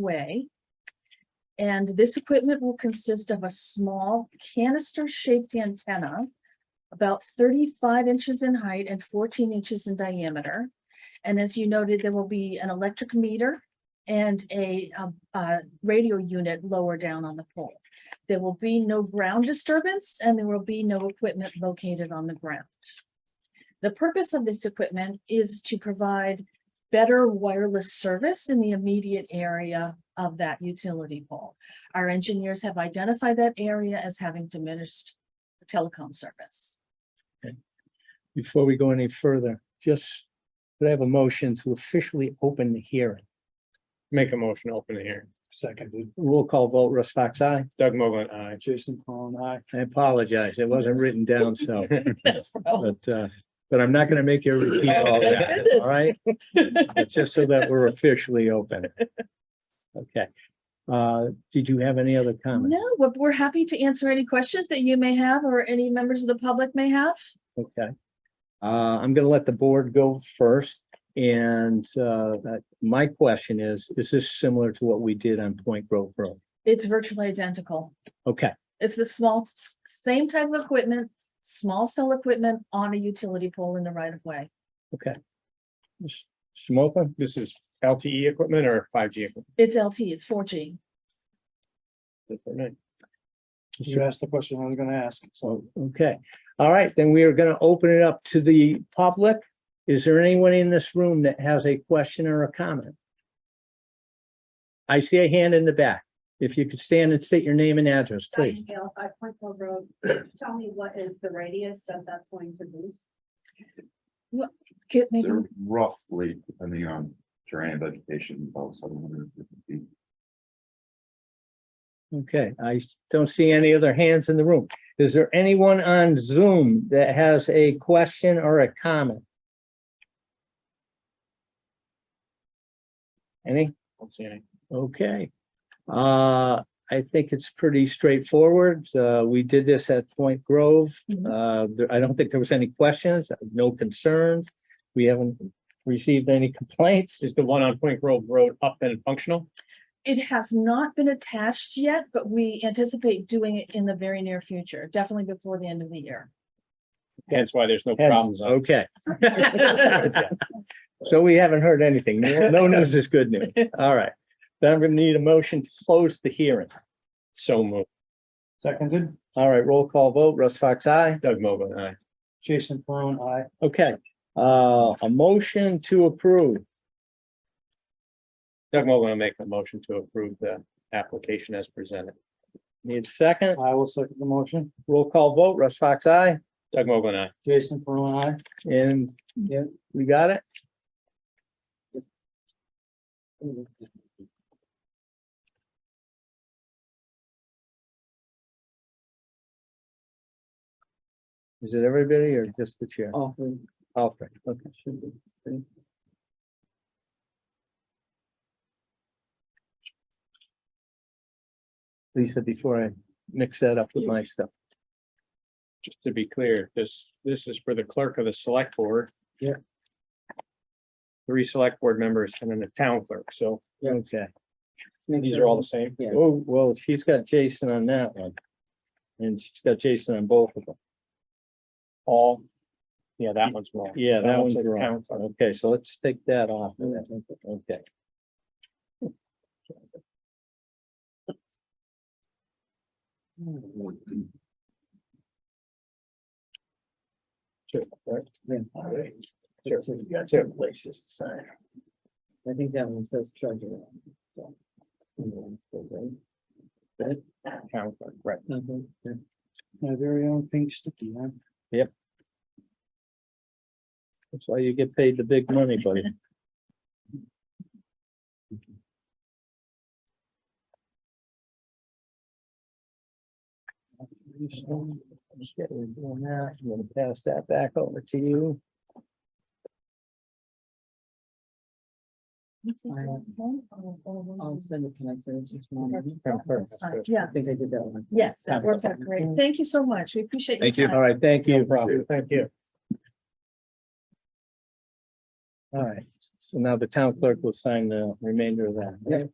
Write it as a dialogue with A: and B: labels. A: way. And this equipment will consist of a small canister-shaped antenna about thirty-five inches in height and fourteen inches in diameter. And as you noted, there will be an electric meter and a, uh, uh, radio unit lower down on the pole. There will be no ground disturbance and there will be no equipment located on the ground. The purpose of this equipment is to provide better wireless service in the immediate area of that utility pole. Our engineers have identified that area as having diminished telecom service.
B: before we go any further, just, could I have a motion to officially open the hearing?
C: Make a motion, to open the hearing.
D: Seconded.
B: Roll call vote, Russ Fox, aye.
C: Doug Mogul, aye.
D: Jason Peron, I.
B: I apologize, it wasn't written down, so,
A: Oh,
B: but, uh, but I'm not gonna make you repeat all that, all right? But Just so that we're officially open. Okay. Uh, did you have any other comments?
A: No, we're, we're happy to answer any questions that you may have or any members of the public may have.
B: Okay. Uh, I'm gonna let the board go first. And, uh, that- my question is, is this similar to what we did on Point Grove Road?
A: It's virtually identical.
B: Okay,
A: It's the small, s- same type of equipment, small cell equipment on a utility pole in the right of way.
B: Smoker?
C: This is LTE equipment or five G equipment?
A: It's LT, it's four G.
C: Different.
D: You asked the question I was gonna ask, so.
B: Okay, all right, then we are gonna open it up to the public. Is there anyone in this room that has a question or a comment? I see a hand in the back. If you could stand and state your name and address, please.
E: Diane Gale, Five Point Hill Road. Tell me what is the radius that that's going to boost?
A: Get me,
F: They're roughly, depending on terrain and vegetation, about seven hundred and fifty feet.
B: Okay, I don't see any other hands in the room. Is there anyone on Zoom that has a question or a comment? Any?
C: Don't see any.
B: Okay. Uh, I think it's pretty straightforward. Uh, we did this at Point Grove.
A: Mhm.
B: Uh, there- I don't think there was any questions, no concerns. We haven't received any complaints.
C: Is the one on Point Grove Road up and functional?
A: it has not been attached yet, but we anticipate doing it in the very near future, definitely before the end of the year.
C: That's why there's no problems. on-
B: Okay. So we haven't heard anything. No no news is good news. All right. Then I'm gonna need a motion to close the hearing.
C: So moved.
D: Seconded,
B: All right, roll call vote. Russ Fox, aye.
C: Doug Mogul, aye.
D: Jason Peron, I.
B: Okay, uh, a motion to approve.
C: Doug Mogul, will make a motion to approve the application as presented.
B: Need a second?
D: I will second the motion.
B: Roll call vote. Russ Fox, aye.
C: Doug Mogul, aye.
D: Jason Peron, I.
B: And yeah, we got it? Is it everybody or just the chair?
D: Oh,
B: Alfred, okay. Lisa, before I mix that up with my stuff.
C: Just to be clear, this, this is for the clerk of the select board.
D: Yeah.
C: Three select board members and then the town clerk. So
B: Okay.
C: these are all the same.
D: Yeah.
B: Oh, well, she's got Jason on that one. And she's got Jason on both of them.
C: All. Yeah, that one's wrong.
B: Yeah, that one's
C: says
B: wrong.
C: town clerk.
B: Okay, so let's take that off. of that. Okay.
C: Sure, right?
B: right.
C: Sure, you got two places to sign.
D: I think that one says treasurer.
C: Town clerk, Right.
D: My very own pink sticky, huh?
B: That's why you get paid the big money, buddy. Just get rid of doing that. I'm gonna pass that back over to you.
A: Oh, I'll
D: send it, can I send it to
C: Town clerk,
A: That's fine.
C: that's good.
A: Yeah,
D: think I did that one.
A: yes, that Mm-hmm. worked out great. Thank you so much. We appreciate your
F: Thank you.
A: time.
B: All right, thank you.
C: No problem. Thank you.
B: All right, so now the town clerk will sign the remainder of that.